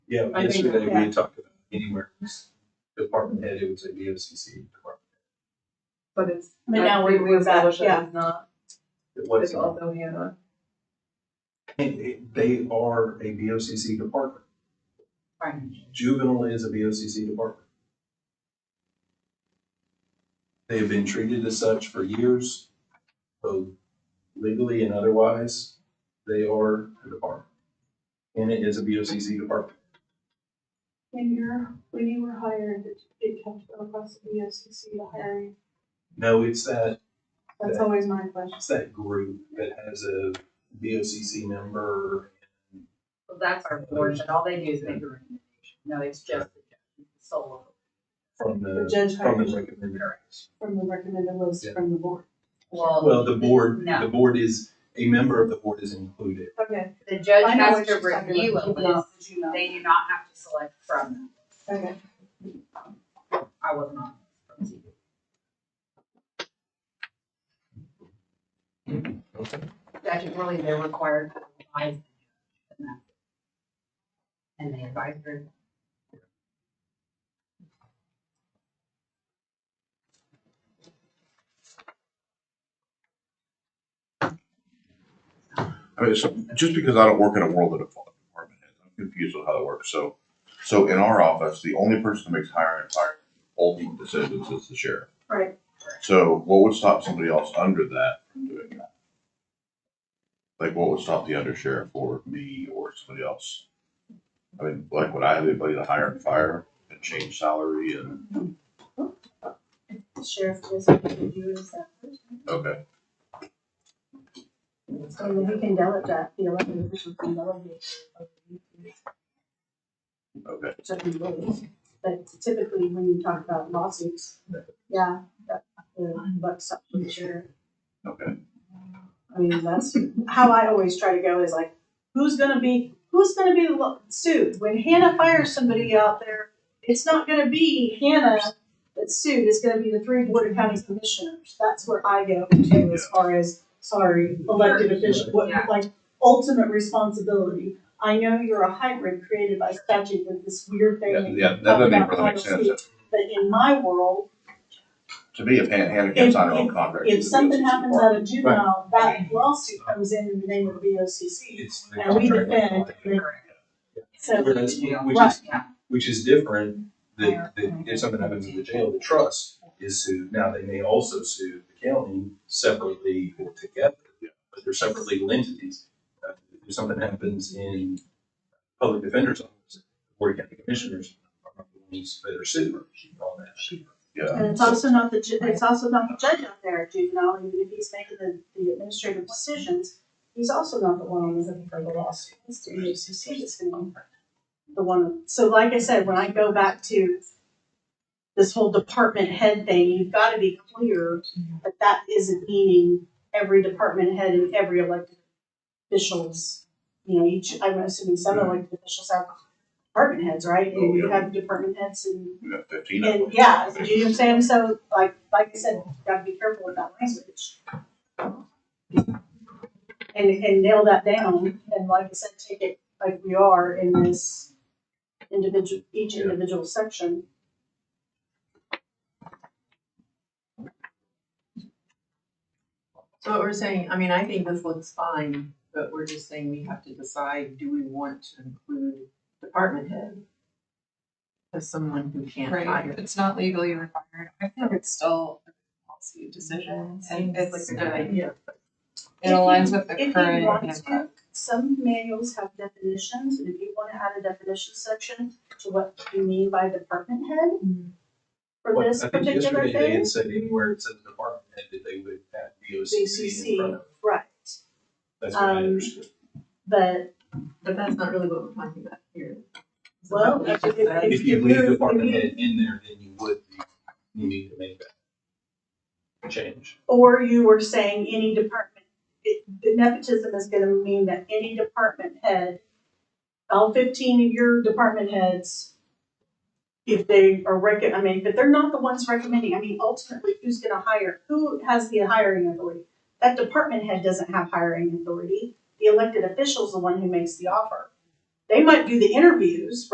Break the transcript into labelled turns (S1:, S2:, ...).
S1: Yeah,
S2: I think-
S1: yesterday
S2: yeah.
S1: we talked about anywhere, department head, it would say VOCC department.
S2: But it's.
S3: But now we- we're back,
S2: established that
S3: yeah.
S2: It's not,
S1: It
S2: it's
S1: was,
S2: also Hannah.
S1: it- it- they are a VOCC department.
S3: Right.
S1: Juvenile is a VOCC department. They have been treated as such for years, both legally and otherwise. They are a department. And it is a VOCC department.
S4: When you're, when you were hired, it- it kept across the BOCC to hire you.
S1: No, it's that
S4: That's
S1: Yeah.
S4: always my question.
S1: It's that group that has a BOCC member.
S3: Well, that's our board, but all they do is make a recommendation. No, it's just the judge, the solo.
S1: From
S4: The
S1: the,
S4: judge
S1: from the
S4: hires
S1: recommended.
S4: from the recommended list
S1: Yeah.
S4: from the board.
S1: Well, the board, the
S3: No,
S1: board is, a member of the board is included.
S4: Okay.
S3: the judge
S4: I know
S3: has
S4: what
S3: to
S4: she's talking about.
S3: review a
S4: Did not-
S3: list.
S4: did you not?
S3: They do not have to select from them.
S4: Okay.
S3: I was not. from TV.
S1: Okay.
S3: Statutorily, they're required to advise. the judge and that. And they advise her.
S5: I mean, so just because I don't work in a world that a department is, I'm confused with how it works. So, so in our office, the only person that makes hire and fire ultimate decisions is the sheriff.
S4: Right.
S5: So what would stop somebody else under that from doing that? Like what would stop the undersheriff or me or somebody else? I mean, like would I have anybody to hire and fire and change salary and,
S3: The sheriff just reviews that.
S5: okay,
S3: So we can delegate, the elected officials can delegate.
S5: okay.
S3: certain ways, but typically when you talk about lawsuits, yeah, that, uh, the buck's up with the sheriff.
S5: Okay.
S3: I mean, that's how I always try to go is like,
S4: Who's gonna be, who's gonna be lo- sued? When Hannah fires somebody out there, it's not gonna be Hannah that's sued, it's gonna be the three Board of County Commissioners. That's where I go to as far as, sorry, elected official, what,
S3: Yeah.
S4: like, ultimate responsibility. I know you're a hybrid created by statute with this weird thing.
S5: Yeah,
S4: that
S5: yeah, that doesn't even
S4: talk
S5: really
S4: about
S5: make sense.
S4: But in my world,
S5: To me, if Hannah Hannah can't sign her own contract.
S4: if
S5: she's a
S4: something
S5: business
S4: happens
S5: partner.
S4: out of juvenile, that lawsuit comes in in the name of the BOCC.
S1: It's the
S4: And we
S1: contract.
S4: defend, and so,
S1: Whereas, which is,
S4: Right.
S1: which is different, that, that if something happens in the jail, the trust is sued. Now, they may also sue the county separately or together, but they're separate legal entities. Uh, If something happens in public defender's office, or county commissioners, are the ones that are sued on that.
S5: Yeah.
S4: and it's also not the, ju- it's also not the judge out there at juvenile, even if he's making the, the administrative decisions, he's also not the one looking for the lawsuit. It's the BOCC that's gonna be the one, so like I said, when I go back to this whole department head thing, you've gotta be clear that that isn't meaning every department head and every elected officials. You know, each, I'm assuming some elected officials have department heads, right? And you have department heads and
S5: We got fifteen. of them.
S4: and yeah, do you know what I'm saying? So like, like I said, gotta be careful with that language. And, and nail that down, and like I said, take it like we are in this individual, each individual section.
S2: So what we're saying, I mean, I think this looks fine, but we're just saying we have to decide, do we want to include department head? As someone who can't
S6: Right,
S2: hire.
S6: if it's not legally required, I think it's still a policy decision, and it's,
S2: Seems like a good idea.
S6: it aligns with
S4: If
S6: the
S4: you want
S6: current.
S4: to, some manuals have definitions, and if you wanna add a definition section to what you mean by department head for
S1: Well,
S4: this particular
S1: I think yesterday they
S4: thing,
S1: had said anywhere it says department head that they would add VOCC in front
S4: BCC,
S1: of.
S4: right,
S1: That's what I
S4: Um,
S1: understood.
S4: but
S2: But that's not really what we're talking about here. So
S4: Well,
S2: what we
S4: if-
S2: just
S4: if-
S2: said-
S1: If you leave
S4: you're-
S1: department
S4: if you-
S1: head in there, then you would be needing to make that change.
S4: Or you were saying any department, it, the nepotism is gonna mean that any department head, all fifteen of your department heads, if they are rec, I mean, but they're not the ones recommending, I mean, ultimately, who's gonna hire, who has the hiring authority? That department head doesn't have hiring authority, the elected official's the one who makes the offer. They might do the interviews,